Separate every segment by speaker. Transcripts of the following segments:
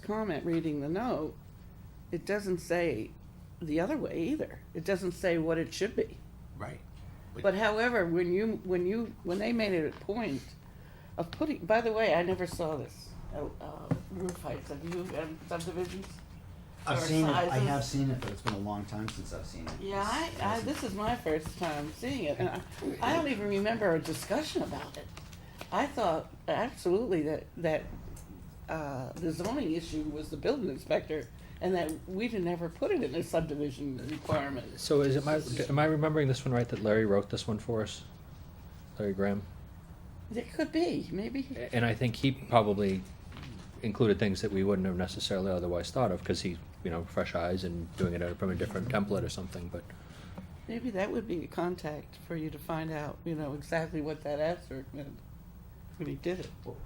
Speaker 1: comment reading the note, it doesn't say the other way either. It doesn't say what it should be.
Speaker 2: Right.
Speaker 1: But however, when you, when you, when they made it a point of putting, by the way, I never saw this, uh, uh, roof heights, have you, um, subdivisions?
Speaker 2: I've
Speaker 1: or
Speaker 2: seen it, I
Speaker 1: sizes?
Speaker 2: have seen it, but it's been a long time since I've seen it.
Speaker 1: Yeah, I,
Speaker 2: It's-
Speaker 1: I,
Speaker 2: it's-
Speaker 1: this is my first time seeing it, and I, I don't even remember a discussion about it. I thought absolutely that, that, uh, the zoning issue was the building inspector, and that we didn't ever put it in the subdivision requirements.
Speaker 3: So is it my, am I remembering this one right, that Larry wrote this one for us? Larry Graham?
Speaker 1: It could be, maybe,
Speaker 3: And I think he probably included things that we wouldn't have necessarily otherwise thought of, because he, you know, fresh eyes and doing it from a different template or something, but,
Speaker 1: maybe that would be a contact for you to find out, you know, exactly what that asterisk meant when he did it.
Speaker 2: Well,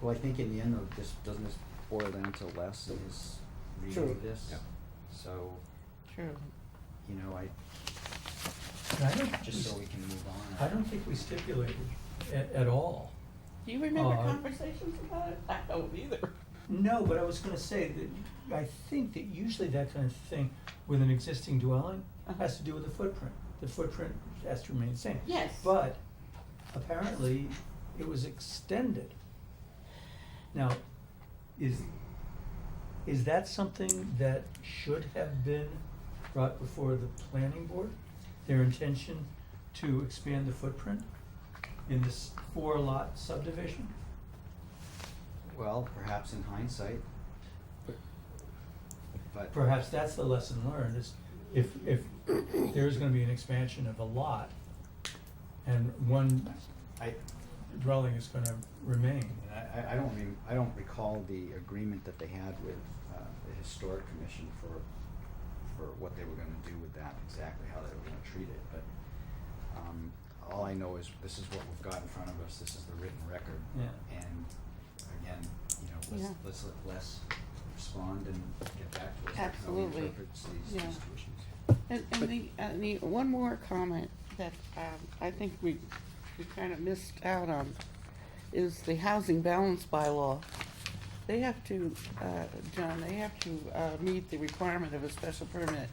Speaker 2: well, I think in the end though, this, doesn't this boil down to less in his reading
Speaker 1: True.
Speaker 2: of this?
Speaker 3: Yeah.
Speaker 2: So,
Speaker 1: True.
Speaker 2: you know, I,
Speaker 4: And I don't,
Speaker 2: just so
Speaker 4: we-
Speaker 2: we can move on.
Speaker 4: I don't think we stipulated at, at all.
Speaker 1: Do you remember
Speaker 4: Uh,
Speaker 1: conversations about it? I don't either.
Speaker 4: No, but I was gonna say that I think that usually that kind of thing with an existing dwelling
Speaker 1: Uh-huh.
Speaker 4: has to do with the footprint. The footprint has to remain the same.
Speaker 1: Yes.
Speaker 4: But apparently it was extended. Now, is, is that something that should have been brought before the planning board? Their intention to expand the footprint in this four lot subdivision?
Speaker 2: Well, perhaps in hindsight. But,
Speaker 4: Perhaps that's the lesson learned is if, if there's gonna be an expansion of a lot and one
Speaker 2: I,
Speaker 4: dwelling is gonna remain.
Speaker 2: And I, I- I don't re- I don't recall the agreement that they had with, uh, the historic commission for, for what they were gonna do with that, exactly how they were gonna treat it, but, um, all I know is this is what we've got in front of us, this is the written record.
Speaker 4: Yeah.
Speaker 2: And again, you know, let's,
Speaker 1: Yeah.
Speaker 2: let's let Les respond and get back to us with how he
Speaker 1: Absolutely.
Speaker 2: interprets these, these two
Speaker 1: Yeah.
Speaker 2: issues.
Speaker 1: And, and the, and the, one more comment that, um, I think we, we kind of missed out on is the housing balance bylaw. They have to, uh, John, they have to, uh, meet the requirement of a special permit.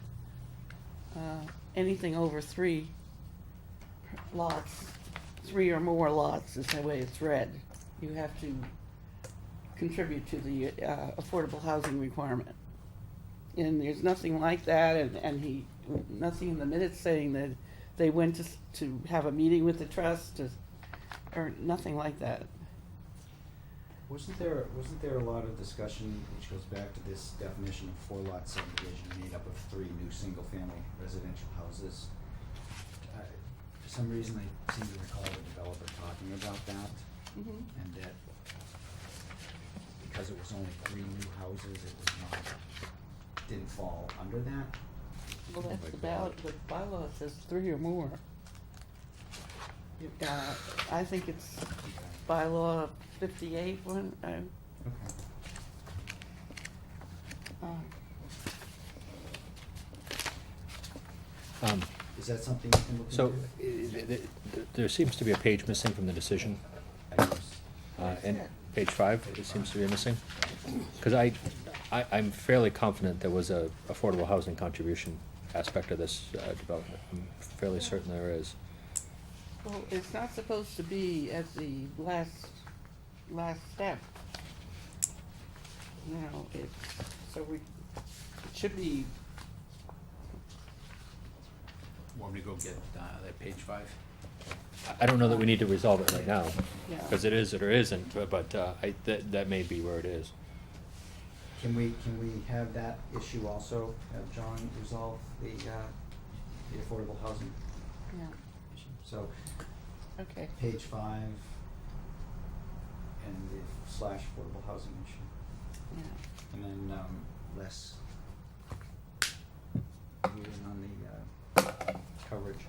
Speaker 1: Uh, anything over three lots, three or more lots is the way it's read. You have to contribute to the, uh, affordable housing requirement and there's nothing like that, and, and he, nothing in the minutes saying that they went to, s- to have a meeting with the trust, to- or nothing like that.
Speaker 2: Wasn't there, wasn't there a lot of discussion, which goes back to this definition of four lot subdivision made up of three new single-family residential houses? I- For some reason, I seem to recall the developer talking about that, and that because it was only three new houses, it was not, didn't fall under that.
Speaker 1: Well,
Speaker 2: Oh
Speaker 1: that's
Speaker 2: my
Speaker 1: the ballot, the bylaw says three or more. Uh, I think it's
Speaker 2: Okay.
Speaker 1: bylaw fifty-eight, one, uh,
Speaker 2: Okay.
Speaker 1: uh,
Speaker 3: um,
Speaker 2: Is that something you can look into?
Speaker 3: so, i- th- th- th- there seems to be a page missing from the decision,
Speaker 2: I guess.
Speaker 3: uh, and page five, it seems to be missing. Because I, I, I'm fairly confident there was a affordable housing contribution aspect of this, uh, development, I'm fairly certain there is.
Speaker 1: well, it's not supposed to be at the last, last step. You know, it, so we, it should be
Speaker 2: Want me to go get, uh, that page five?
Speaker 3: I- I don't know that we need to resolve it right now,
Speaker 1: Yeah.
Speaker 3: because it is or isn't, but- but uh, I, that, that may be where it is.
Speaker 2: Can we, can we have that issue also, have John resolve the, uh, the affordable housing
Speaker 1: Yeah,
Speaker 2: issue? So,
Speaker 1: okay.
Speaker 2: page five, and the slash affordable housing issue,
Speaker 1: Yeah.
Speaker 2: and then, um, less reading on the, uh, coverage.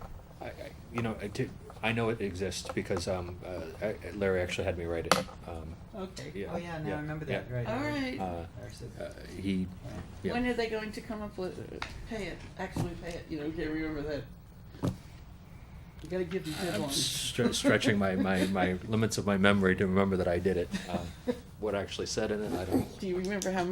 Speaker 3: I, I, you know, I did, I know it exists because um, uh, I- Larry actually had me write it. Um,
Speaker 1: Okay.
Speaker 3: Yeah.
Speaker 2: Oh, yeah, now I remember that,
Speaker 3: yeah.
Speaker 2: right.
Speaker 1: All right.
Speaker 3: Uh,
Speaker 2: I said-
Speaker 3: uh, He, yeah.
Speaker 1: When are they going to come up with, pay it, actually pay it, you know, get remember that. You gotta give them
Speaker 3: I'm
Speaker 1: deadlines.
Speaker 3: stre- stretching my, my, my limits of my memory to remember that I did it. Um, What I actually said in it, I don't.
Speaker 1: Do you remember how